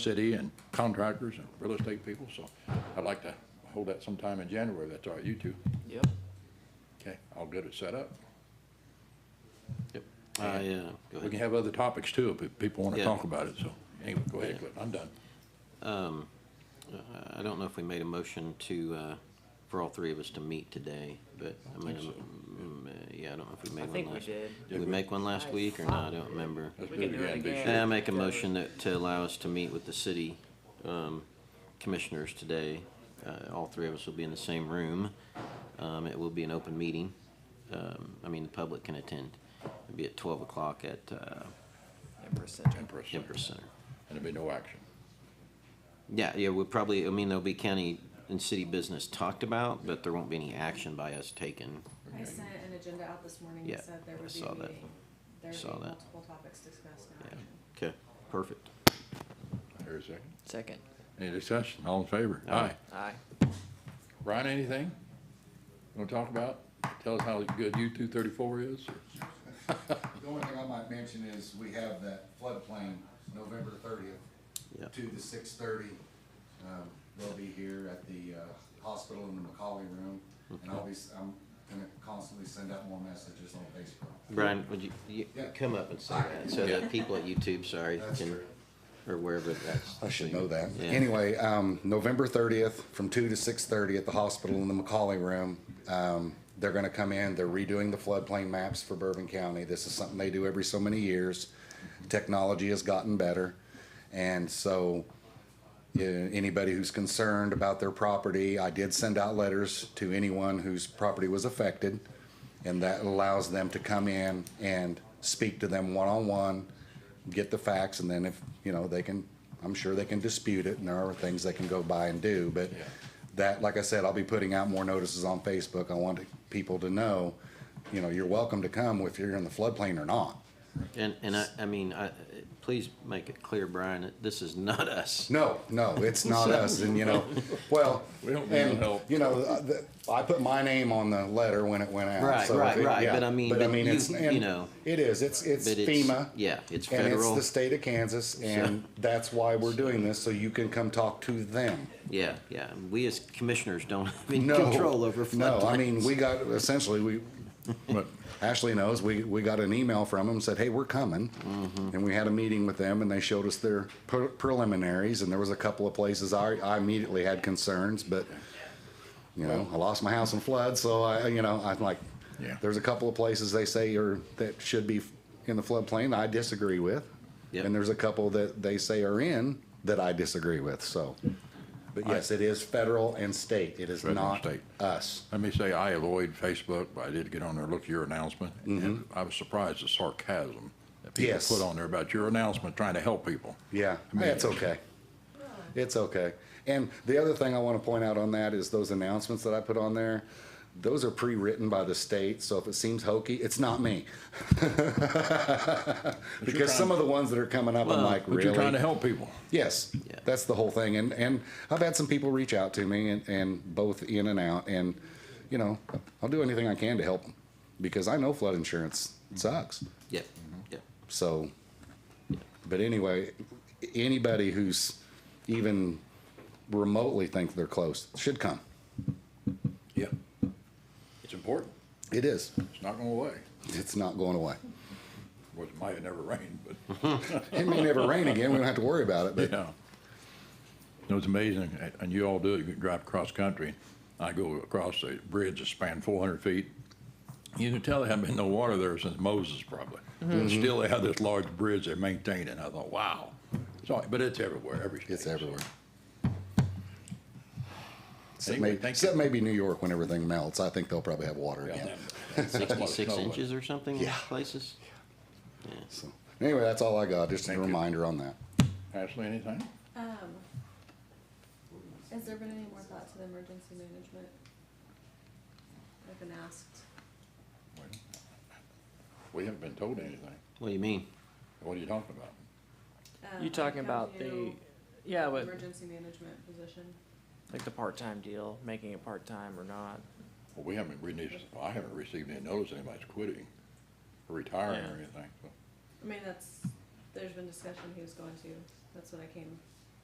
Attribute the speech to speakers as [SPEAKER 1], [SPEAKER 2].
[SPEAKER 1] city and contractors and real estate people, so I'd like to hold that sometime in January, if that's all right, you two.
[SPEAKER 2] Yep.
[SPEAKER 1] Okay, all good at setup.
[SPEAKER 2] Yep.
[SPEAKER 1] Uh,
[SPEAKER 3] yeah, go
[SPEAKER 1] We can have other topics too, if people want to
[SPEAKER 3] Yeah.
[SPEAKER 1] talk about it, so, anyway, go ahead, Cliff, I'm done.
[SPEAKER 3] I don't know if we made a motion to, uh, for all three of us to meet today, but I mean, mm, uh, yeah, I don't know if we made
[SPEAKER 2] I
[SPEAKER 3] one last.
[SPEAKER 2] think we did.
[SPEAKER 3] Did we make one last week or not? I don't remember.
[SPEAKER 1] Let's
[SPEAKER 2] We
[SPEAKER 1] do it
[SPEAKER 2] can do it
[SPEAKER 1] again, be
[SPEAKER 2] again.
[SPEAKER 1] sure.
[SPEAKER 3] Yeah, I make a motion that, to allow us to meet with the city, um, commissioners today. Uh, all three of us will be in the same room. Um, it will be an open meeting. Um, I mean, the public can attend. It'll be at twelve o'clock at, uh,
[SPEAKER 2] Empress
[SPEAKER 3] Um,
[SPEAKER 2] Center.
[SPEAKER 1] Empress Center.
[SPEAKER 3] Empress Center.
[SPEAKER 1] And there'll be no action.
[SPEAKER 3] Yeah, yeah, we'll probably, I mean, there'll be county and city business talked about, but there won't be any action by us taken.
[SPEAKER 4] I sent an agenda out this morning
[SPEAKER 3] Yeah,
[SPEAKER 4] that said there
[SPEAKER 3] I
[SPEAKER 4] would be
[SPEAKER 3] saw
[SPEAKER 4] a
[SPEAKER 3] that.
[SPEAKER 4] meeting. There
[SPEAKER 3] Saw
[SPEAKER 4] would be
[SPEAKER 3] that.
[SPEAKER 4] multiple topics discussed in
[SPEAKER 3] Yeah,
[SPEAKER 4] action.
[SPEAKER 3] okay, perfect.
[SPEAKER 1] Here a second.
[SPEAKER 2] Second.
[SPEAKER 1] Any discussion, all in favor?
[SPEAKER 3] Aye.
[SPEAKER 1] Aye.
[SPEAKER 2] Aye.
[SPEAKER 1] Brian, anything you want to talk about? Tell us how good U two thirty-four is?
[SPEAKER 5] The only thing I might mention is we have that floodplain, November
[SPEAKER 3] Yeah.
[SPEAKER 5] thirtieth to the six thirty. Um, They'll be here at the uh, hospital in the McCauley room, and I'll be, s- I'm gonna constantly send out more messages on Facebook.
[SPEAKER 3] Brian, would you, you,
[SPEAKER 5] Yeah.
[SPEAKER 3] come up and say that, so that people at YouTube, sorry,
[SPEAKER 5] That's
[SPEAKER 3] can,
[SPEAKER 5] true.
[SPEAKER 3] or wherever that's.
[SPEAKER 5] I should know that.
[SPEAKER 3] Yeah.
[SPEAKER 5] Anyway, um, November thirtieth, from two to six thirty at the hospital in the McCauley room. Um, they're gonna come in, they're redoing the floodplain maps for Bourbon County. This is something they do every so many years. Technology has gotten better. And so, yeah, anybody who's concerned about their property, I did send out letters to anyone whose property was affected. And that allows them to come in and speak to them one-on-one, get the facts, and then if, you know, they can, I'm sure they can dispute it, and there are things they can go by and do, but
[SPEAKER 1] Yeah.
[SPEAKER 5] that, like I said, I'll be putting out more notices on Facebook. I want people to know, you know, you're welcome to come if you're in the floodplain or not.
[SPEAKER 3] And, and I, I mean, I, please make it clear, Brian, that this is not us.
[SPEAKER 5] No, no, it's not us, and you know, well,
[SPEAKER 1] We don't need no
[SPEAKER 5] and
[SPEAKER 1] help.
[SPEAKER 5] you know, uh, the- I put my name on the letter when it went out.
[SPEAKER 3] Right,
[SPEAKER 5] so if
[SPEAKER 3] right,
[SPEAKER 5] it-
[SPEAKER 3] right,
[SPEAKER 5] yeah,
[SPEAKER 3] but I mean,
[SPEAKER 5] but I
[SPEAKER 3] but
[SPEAKER 5] mean,
[SPEAKER 3] you-
[SPEAKER 5] it's and
[SPEAKER 3] you know,
[SPEAKER 5] it is. It's it's
[SPEAKER 3] But it's-
[SPEAKER 5] FEMA.
[SPEAKER 3] Yeah, it's
[SPEAKER 5] and it's
[SPEAKER 3] federal,
[SPEAKER 5] the state of Kansas, and that's why we're doing this, so you can come talk to them.
[SPEAKER 3] yeah, yeah, we as commissioners don't have any
[SPEAKER 5] No
[SPEAKER 3] control over floodplains.
[SPEAKER 5] No, I mean, we got essentially we.
[SPEAKER 1] But
[SPEAKER 5] Ashley knows we, we got an email from them said, hey, we're coming.
[SPEAKER 3] Mm-hmm.
[SPEAKER 5] And we had a meeting with them and they showed us their pre- preliminaries. And there was a couple of places I, I immediately had concerns, but you know, I lost my house in flood. So I, you know, I'm like,
[SPEAKER 1] Yeah.
[SPEAKER 5] there's a couple of places they say are that should be in the floodplain I disagree with.
[SPEAKER 3] Yep.
[SPEAKER 5] And there's a couple that they say are in that I disagree with. So, but yes, it is federal and state. It is
[SPEAKER 1] Federal and
[SPEAKER 5] not
[SPEAKER 1] state.
[SPEAKER 5] us.
[SPEAKER 1] Let me say, I avoid Facebook, but I did get on there, look at your announcement, and I was surprised at sarcasm that people
[SPEAKER 5] Mm-hmm. Yes.
[SPEAKER 1] put on there about your announcement, trying to help people.
[SPEAKER 5] Yeah, it's okay. It's okay. And the other thing I want to point out on that is those announcements that I put on there, those are pre-written by the state, so if it seems hokey, it's not me. Because some of the ones that are coming up, I'm like,
[SPEAKER 1] But you're trying to
[SPEAKER 5] really?
[SPEAKER 1] help people.
[SPEAKER 5] Yes,
[SPEAKER 3] Yeah.
[SPEAKER 5] that's the whole thing. And, and I've had some people reach out to me and, and both in and out, and, you know, I'll do anything I can to help them. Because I know flood insurance sucks.
[SPEAKER 3] Yep, yep,
[SPEAKER 5] So, but anyway, anybody who's even remotely think they're close should come.
[SPEAKER 1] Yeah. It's important.
[SPEAKER 5] It is.
[SPEAKER 1] It's not going away.
[SPEAKER 5] It's not going away.
[SPEAKER 1] Of course, it might have never rained, but.
[SPEAKER 5] Mm-hmm. It may never rain again. We don't have to worry about it, but
[SPEAKER 1] Yeah. It was amazing, and- and you all do it, you can drive across country. I go across a bridge that spanned four hundred feet. You can tell there hadn't been no water there since Moses probably. And still they have this large bridge they maintain, and I thought, wow. So, but it's everywhere, every state.
[SPEAKER 5] it's everywhere. Except,
[SPEAKER 1] Anyway,
[SPEAKER 5] maybe,
[SPEAKER 1] thank
[SPEAKER 5] except
[SPEAKER 1] you.
[SPEAKER 5] maybe New York when everything melts. I think they'll probably have water
[SPEAKER 1] Yeah,
[SPEAKER 5] again.
[SPEAKER 1] that- that's what it's
[SPEAKER 3] sixty-six
[SPEAKER 1] known.
[SPEAKER 3] inches or something in
[SPEAKER 5] Yeah.
[SPEAKER 3] places?
[SPEAKER 5] So, anyway, that's all I got. Just
[SPEAKER 1] Thank
[SPEAKER 5] a
[SPEAKER 1] you.
[SPEAKER 5] reminder on that.
[SPEAKER 1] Ashley, anything?
[SPEAKER 4] Has there been any more thought to the emergency management? I've been asked.
[SPEAKER 1] Well, We haven't been told anything.
[SPEAKER 3] What do you mean?
[SPEAKER 1] What are you talking about?
[SPEAKER 4] Um,
[SPEAKER 2] You talking
[SPEAKER 4] have
[SPEAKER 2] about the,
[SPEAKER 4] you-
[SPEAKER 2] yeah, but
[SPEAKER 4] Emergency management position.
[SPEAKER 2] like the part-time deal, making it part-time or not?
[SPEAKER 1] Well, we haven't, we need, I haven't received any notice anybody's quitting or retiring or
[SPEAKER 2] Yeah.
[SPEAKER 1] anything, so.
[SPEAKER 4] I mean, that's, there's been discussion who's going to. That's what I came